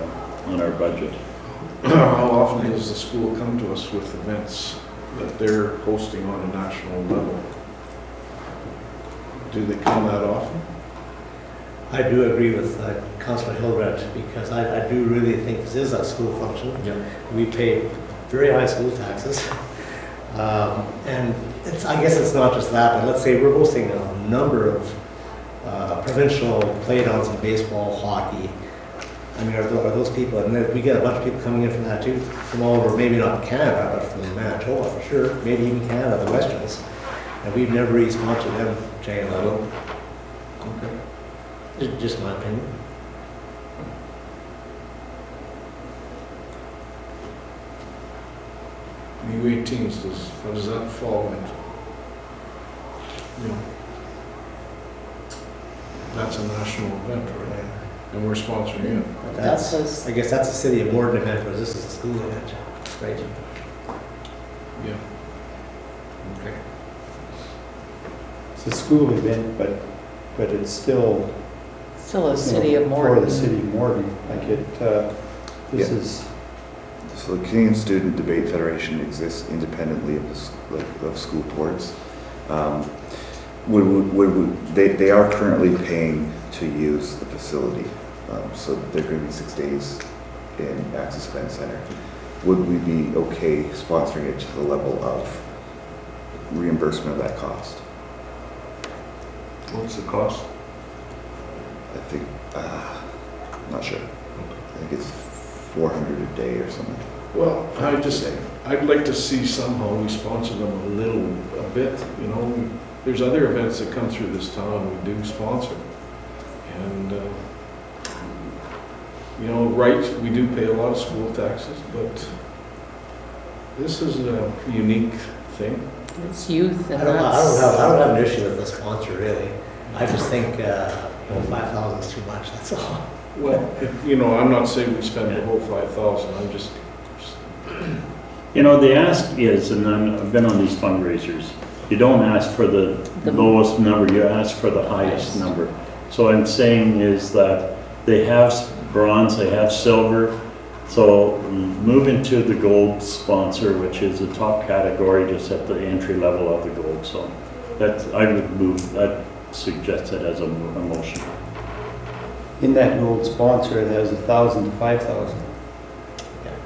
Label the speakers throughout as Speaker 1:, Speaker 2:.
Speaker 1: our budget.
Speaker 2: How often does the school come to us with events that they're hosting on a national level? Do they come that often?
Speaker 3: I do agree with uh, Councilor Hilbert, because I, I do really think this is a school function. We pay very high school taxes. Um, And it's, I guess it's not just that, but let's say we're hosting a number of uh, provincial playdowns in baseball, hockey. I mean, are tho- are those people, and then we get a bunch of people coming in from that too, from all over, maybe not Canada, but from Manitoba for sure, maybe even Canada, the Westerns. And we've never really sponsored them, Jay Leno,
Speaker 2: Okay.
Speaker 3: Ju- just my opinion.
Speaker 2: The U eighteens, does, what does that fall into? You know, That's a national event, right? And we're sponsoring it.
Speaker 3: But
Speaker 4: That's
Speaker 3: that's,
Speaker 4: his,
Speaker 3: I guess that's a city of Warden event, whereas this is a school event, right?
Speaker 2: Yeah. Okay.
Speaker 5: It's a school event, but, but it's still.
Speaker 4: still a
Speaker 5: you know,
Speaker 4: city of
Speaker 5: For the
Speaker 4: Morton.
Speaker 5: city of Morton, like it, uh, this
Speaker 6: Yeah.
Speaker 5: is,
Speaker 6: So the Canadian Student Debate Federation exists independently of the, s- like, of school boards. Um, Would, would- would, would- they, they are currently paying to use the facility. Um, So they're going to be six days in Access Event Center. Would we be okay sponsoring it to the level of reimbursement of that cost?
Speaker 2: What's the cost?
Speaker 6: I think, uh, not sure. I think it's four hundred a day or something.
Speaker 2: Well, I just,
Speaker 6: A day.
Speaker 2: I'd like to see somehow we sponsor them a little, a bit, you know, we- there's other events that come through this town we do sponsor. And, uh, you know, right, we do pay a lot of school taxes, but this is a unique thing.
Speaker 4: It's youth
Speaker 3: I
Speaker 4: and
Speaker 3: don't, I don't have, I
Speaker 4: that's,
Speaker 3: don't have an issue with the sponsor really. I just think, uh, you know, five thousand is too much, that's all.
Speaker 2: Well, you know, I'm not saying we spend the whole five thousand, I'm just,
Speaker 1: You know, the ask is, and I'm- I've been on these fundraisers, you don't ask for the
Speaker 4: The-
Speaker 1: lowest number, you ask for the highest
Speaker 4: Highest.
Speaker 1: number. So what I'm saying is that they have s- bronze, they have silver, so move into the gold sponsor, which is the top category, just at the entry level of the gold, so that's, I would move, I'd suggest it as a mo- a motion.
Speaker 5: in that gold sponsor, it has a thousand to five thousand.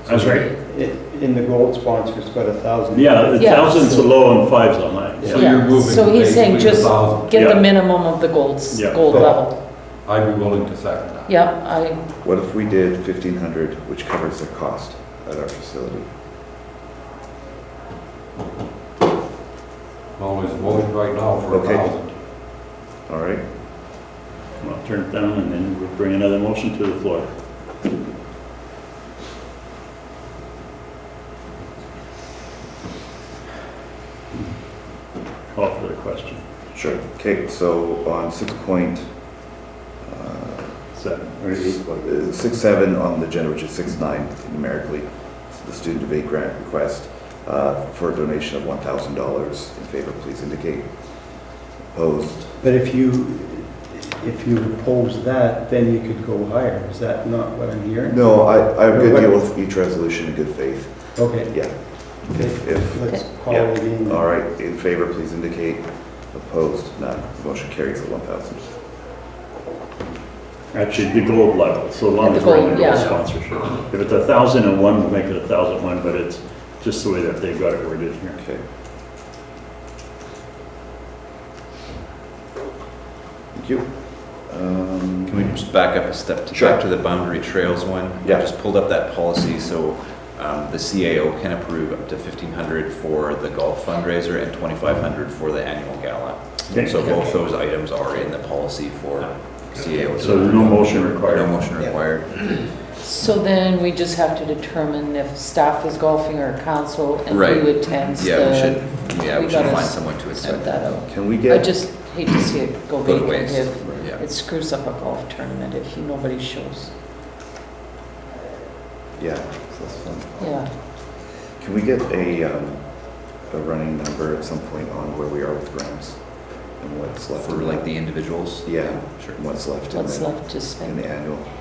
Speaker 1: That's right.
Speaker 5: It, in the gold sponsor, it's got a thousand.
Speaker 1: Yeah, the
Speaker 4: Yeah.
Speaker 1: thousand's the low and five's the high.
Speaker 5: Yeah.
Speaker 7: So you're
Speaker 4: yeah,
Speaker 7: moving.
Speaker 4: so he's saying
Speaker 7: basically
Speaker 4: just
Speaker 7: above.
Speaker 4: get
Speaker 1: Yeah.
Speaker 4: the minimum of the gold, s-
Speaker 1: Yeah.
Speaker 4: gold level.
Speaker 7: I'd be willing to second that.
Speaker 4: Yep, I,
Speaker 6: What if we did fifteen hundred, which covers their cost at our facility?
Speaker 7: Well, there's a motion right now for a
Speaker 6: Okay.
Speaker 7: thousand.
Speaker 6: All right,
Speaker 1: I'll turn it down and then we'll bring another motion to the floor. Call for the question.
Speaker 6: sure. Okay, so on six point, uh,
Speaker 1: Seven or eight.
Speaker 6: uh, six seven on the agenda, which is six nine numerically, it's the student debate grant request uh, for a donation of one thousand dollars. In favor, please indicate. Opposed?
Speaker 5: But if you, if you oppose that, then you could go higher. Is that not what I'm hearing?
Speaker 6: No, I, I'm gonna deal with each resolution in good faith.
Speaker 5: Okay,
Speaker 6: Yeah. If, if,
Speaker 5: let's call it in.
Speaker 6: all right, in favor, please indicate. Opposed? None. Motion carries at one thousand.
Speaker 1: Actually, the gold level, so long
Speaker 4: The
Speaker 1: as we're in
Speaker 4: gold,
Speaker 1: the gold
Speaker 4: yeah.
Speaker 1: sponsorship. If it's a thousand and one, we'll make it a thousand one, but it's just the way that they've got it worded here.
Speaker 6: Okay. Thank you. Um,
Speaker 8: Can we just back up a step to,
Speaker 6: Sure.
Speaker 8: back to the boundary trails one?
Speaker 6: Yeah.
Speaker 8: I just pulled up that policy, so um, the CAO can approve up to fifteen hundred for the golf fundraiser and twenty-five hundred for the annual gala.
Speaker 1: Okay.
Speaker 8: So both those items are in the policy for CAO. to
Speaker 1: So there's no
Speaker 8: approve.
Speaker 1: motion required.
Speaker 8: No motion required.
Speaker 4: so then we just have to determine if staff is golfing or council and
Speaker 8: Right.
Speaker 4: who attends the.
Speaker 8: Yeah, we should, yeah,
Speaker 4: we
Speaker 8: we should
Speaker 4: gotta
Speaker 8: find someone to accept
Speaker 4: Send that
Speaker 8: that.
Speaker 4: out.
Speaker 6: Can we
Speaker 4: I
Speaker 6: get,
Speaker 4: just hate to see it go
Speaker 8: Go to
Speaker 4: vacant
Speaker 8: waste.
Speaker 4: if
Speaker 8: Yeah.
Speaker 4: it screws up a golf tournament if nobody shows.
Speaker 6: yeah, so that's fun.
Speaker 4: Yeah,
Speaker 6: Can we get a, um, a running number at some point on where we are with grants? And what's left?
Speaker 8: For
Speaker 6: in
Speaker 8: like
Speaker 6: that?
Speaker 8: the individuals?
Speaker 6: Yeah.
Speaker 8: Sure.
Speaker 6: What's left in
Speaker 4: what's
Speaker 6: the,
Speaker 4: left to
Speaker 6: in
Speaker 4: spend.
Speaker 6: the annual?